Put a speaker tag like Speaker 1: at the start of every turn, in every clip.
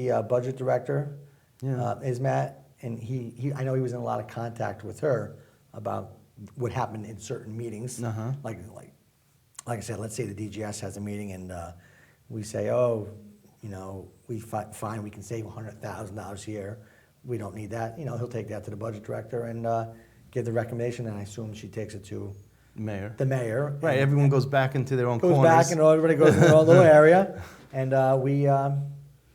Speaker 1: the uh, budget director
Speaker 2: Yeah.
Speaker 1: uh, is Matt, and he, he, I know he was in a lot of contact with her about what happened in certain meetings.
Speaker 2: Uh-huh.
Speaker 1: Like, like, like I said, let's say the DGS has a meeting and uh, we say, oh, you know, we fi- find we can save hundred thousand dollars here. We don't need that. You know, he'll take that to the budget director and uh, give the recommendation, and I assume she takes it to
Speaker 2: Mayor.
Speaker 1: the mayor.
Speaker 2: Right,
Speaker 1: and-
Speaker 2: everyone goes back into their own
Speaker 1: goes
Speaker 2: corners.
Speaker 1: back and everybody goes in their own little area. And uh, we, um,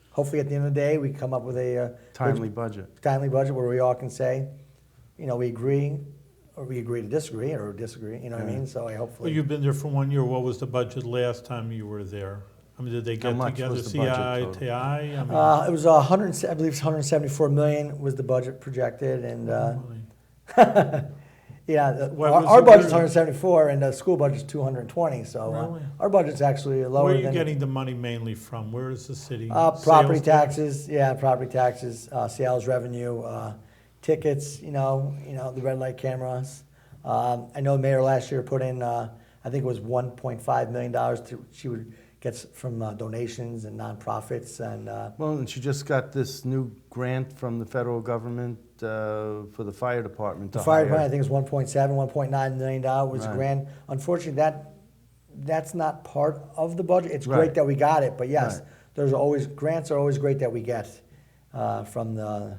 Speaker 1: hopefully at the end of the day, we come up with a uh,
Speaker 2: Timely budget.
Speaker 1: timely budget where we all can say, you know, we agree, or we agree to disagree, or disagree, you know what I mean? So I
Speaker 3: Well,
Speaker 1: hopefully.
Speaker 3: you've been there for one year. What was the budget last time you were there? I mean, did they
Speaker 2: How
Speaker 3: get
Speaker 2: much
Speaker 3: together,
Speaker 2: was the
Speaker 3: CI,
Speaker 2: budget total?
Speaker 3: TI? I mean,
Speaker 1: uh, it was a hundred, and se- I believe it's 174 million was the budget projected, and uh,
Speaker 3: money.
Speaker 1: yeah, the-
Speaker 3: Mm-hmm. What
Speaker 1: our,
Speaker 3: was
Speaker 1: our
Speaker 3: the-
Speaker 1: budget's 174, and the school budget's 220. So uh,
Speaker 3: Really?
Speaker 1: our budget's actually lower
Speaker 3: Where are you
Speaker 1: than
Speaker 3: getting the money mainly from? Where is the city?
Speaker 1: Uh, property
Speaker 3: Sales tax?
Speaker 1: taxes, yeah, property taxes, uh, sales revenue, uh, tickets, you know, you know, the red light cameras. Um, I know the mayor last year put in, uh, I think it was one point five million dollars to, she would gets from uh, donations and nonprofits and, uh,
Speaker 2: Well, and she just got this new grant from the federal government uh, for the fire department to
Speaker 1: the fire
Speaker 2: hire.
Speaker 1: department, I think it was one point seven, one point nine million dollar was a
Speaker 2: Right.
Speaker 1: grand. Unfortunately, that, that's not part of the budget. It's
Speaker 2: Right.
Speaker 1: great that we got it, but yes,
Speaker 2: Right.
Speaker 1: there's always, grants are always great that we get, uh, from the,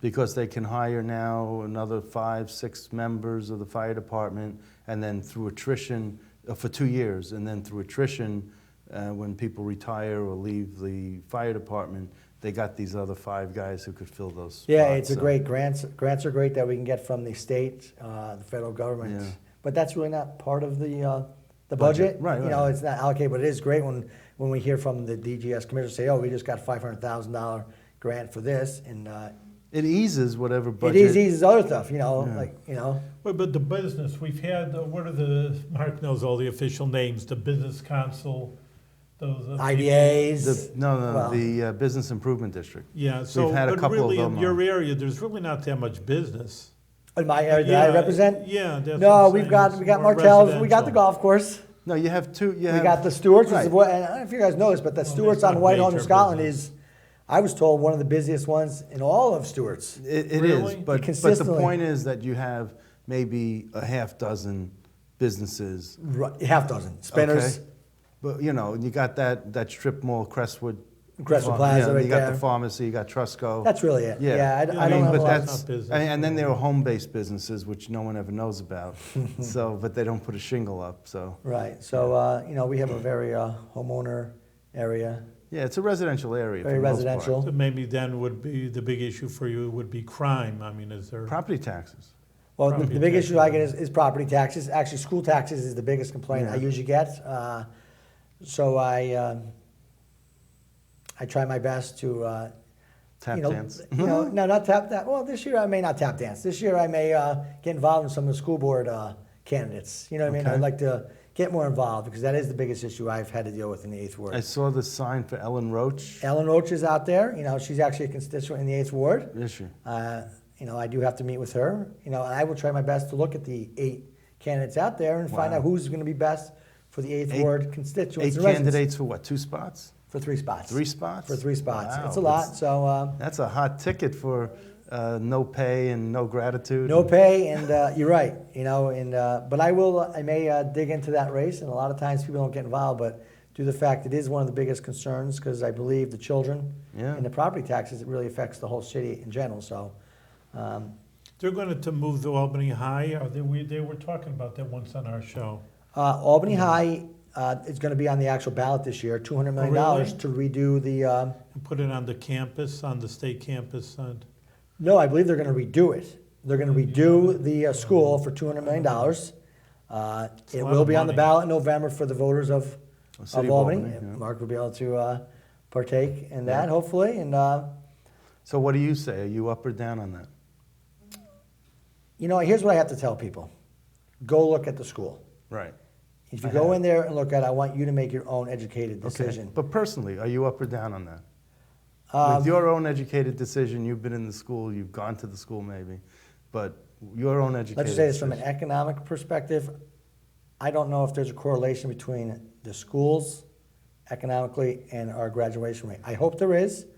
Speaker 2: Because they can hire now another five, six members of the fire department, and then through attrition, uh, for two years, and then through attrition, uh, when people retire or leave the fire department, they got these other five guys who could fill those spots.
Speaker 1: Yeah, it's a
Speaker 2: so-
Speaker 1: great grants. Grants are great that we can get from the state, uh, the federal government.
Speaker 2: Yeah.
Speaker 1: But that's really not part of the uh, the budget.
Speaker 2: Budget, right,
Speaker 1: You know,
Speaker 2: right.
Speaker 1: it's not allocated, but it is great when when we hear from the DGS commissioner say, "Oh, we just got five hundred thousand dollar grant for this," and uh,
Speaker 2: It eases whatever
Speaker 1: it
Speaker 2: budget.
Speaker 1: is easy other stuff. You know,
Speaker 2: Yeah.
Speaker 1: like you know,
Speaker 3: Well, but the business, we've had, uh, what are the, Mark knows all the official names, the business council, those. uh, people.
Speaker 1: IDAs.
Speaker 2: The, no, no,
Speaker 1: Well-
Speaker 2: the uh, business improvement district.
Speaker 3: Yeah, so,
Speaker 2: had a
Speaker 3: but
Speaker 2: couple of
Speaker 3: really in
Speaker 2: them,
Speaker 3: your
Speaker 2: uh,
Speaker 3: area, there's really not that much business.
Speaker 1: in my area that I
Speaker 3: Yeah,
Speaker 1: represent.
Speaker 3: Yeah, that's what
Speaker 1: No,
Speaker 3: I'm
Speaker 1: we've
Speaker 3: saying.
Speaker 1: got
Speaker 3: It's
Speaker 1: we got
Speaker 3: more
Speaker 1: Martell's. We got the
Speaker 3: residential.
Speaker 1: golf course.
Speaker 2: No, you have two. You
Speaker 1: We
Speaker 2: have,
Speaker 1: got the Stewarts, which is
Speaker 2: Right.
Speaker 1: what, and I don't know if you guys know this, but the
Speaker 3: Well,
Speaker 1: Stewarts
Speaker 3: that's not
Speaker 1: on Whitehall, New
Speaker 3: major
Speaker 1: Scotland
Speaker 3: business.
Speaker 1: is, I was told, one of the busiest ones in all of Stewarts.
Speaker 2: It, it is,
Speaker 3: Really?
Speaker 2: but, but the
Speaker 1: Consistently.
Speaker 2: point is that you have maybe a half dozen businesses.
Speaker 1: Right, half dozen spinners.
Speaker 2: okay? But you know, you got that that strip mall, Crestwood.
Speaker 1: Crestwood
Speaker 2: Pharma-
Speaker 1: Plaza
Speaker 2: yeah,
Speaker 1: right
Speaker 2: You got
Speaker 1: there.
Speaker 2: the pharmacy. You got Trusco.
Speaker 1: That's really it. Yeah, I,
Speaker 3: Yeah,
Speaker 1: I
Speaker 3: I
Speaker 1: don't
Speaker 3: mean,
Speaker 1: have a
Speaker 2: but
Speaker 1: lot.
Speaker 2: that's
Speaker 3: It's not business.
Speaker 2: and, and then there are home-based businesses which no one ever knows about. so, but they don't put a shingle up. So,
Speaker 1: right. So uh, you know, we have a very uh, homeowner area,
Speaker 2: yeah, it's a residential area. for
Speaker 1: very
Speaker 2: the most part.
Speaker 1: residential.
Speaker 3: So Maybe then would be, the big issue for you would be crime. I mean, is there?
Speaker 2: Property taxes.
Speaker 1: Well, the,
Speaker 3: Property
Speaker 1: the big
Speaker 3: tax.
Speaker 1: issue I get is, is property taxes. Actually, school taxes is the biggest complaint I
Speaker 2: Yeah.
Speaker 1: usually get. Uh, so I, um, I try my best to. Uh,
Speaker 2: Tap
Speaker 1: you know,
Speaker 2: dance.
Speaker 1: You know, no, not tap that. Well, this year I may not tap dance. This year I may uh, get involved in some of the school board uh, candidates. You know what I mean?
Speaker 2: Okay.
Speaker 1: I'd like to get more involved because that is the biggest issue I've had to deal with in the eighth ward.
Speaker 2: I saw the sign for Ellen Roach.
Speaker 1: Ellen Roach is out there. You know, she's actually a constituent in the eighth ward.
Speaker 2: Is she?
Speaker 1: Uh, you know, I do have to meet with her. You know, and I will try my best to look at the eight candidates out there and find
Speaker 2: Wow.
Speaker 1: out who's going to be best for the eighth
Speaker 2: Eight-
Speaker 1: ward constituents
Speaker 2: Eight
Speaker 1: and residents.
Speaker 2: candidates for what? Two spots?
Speaker 1: for three spots.
Speaker 2: Three spots?
Speaker 1: for three spots.
Speaker 2: Wow,
Speaker 1: it's a lot.
Speaker 2: that's-
Speaker 1: So. Um,
Speaker 2: That's a hot ticket for uh, no pay and no gratitude.
Speaker 1: No pay, and uh, you're right. You know, and uh, but I will. I may uh, dig into that race, and a lot of times people don't get involved, but due to the fact it is one of the biggest concerns, because I believe the children
Speaker 2: Yeah.
Speaker 1: and the property taxes, it really affects the whole city in general. So, um,
Speaker 3: They're going to move the Albany High. Are they, we, they were talking about that once on our show.
Speaker 1: uh, Albany High uh, is going to be on the actual ballot this year, two hundred
Speaker 2: Oh,
Speaker 1: million dollars to redo the. Um,
Speaker 3: And put it on the campus, on the state campus. And
Speaker 1: No, I believe they're going to redo it. They're going to redo the uh, school for two hundred million dollars. Uh, it
Speaker 3: a lot
Speaker 1: will
Speaker 3: of
Speaker 1: be on the
Speaker 3: money.
Speaker 1: ballot in November for the voters of,
Speaker 2: Of
Speaker 1: of
Speaker 2: City
Speaker 1: Albany.
Speaker 2: of Albany, yeah.
Speaker 1: Mark will be able to uh, partake in that, hopefully. And uh,
Speaker 2: So what do you say? Are you up or down on that?
Speaker 1: you know, here's what I have to tell people: go look at the school.
Speaker 2: Right.
Speaker 1: If you
Speaker 2: I
Speaker 1: go
Speaker 2: have.
Speaker 1: in there and look at, it, I want you to make your own educated decision.
Speaker 2: Okay. But personally, are you up or down on that?
Speaker 1: Um,
Speaker 2: With your own educated decision, you've been in the school, you've gone to the school maybe, but your own educated
Speaker 1: Let's just say this from an
Speaker 2: decision-
Speaker 1: economic perspective. I don't know if there's a correlation between the schools economically and our graduation rate. I hope there is.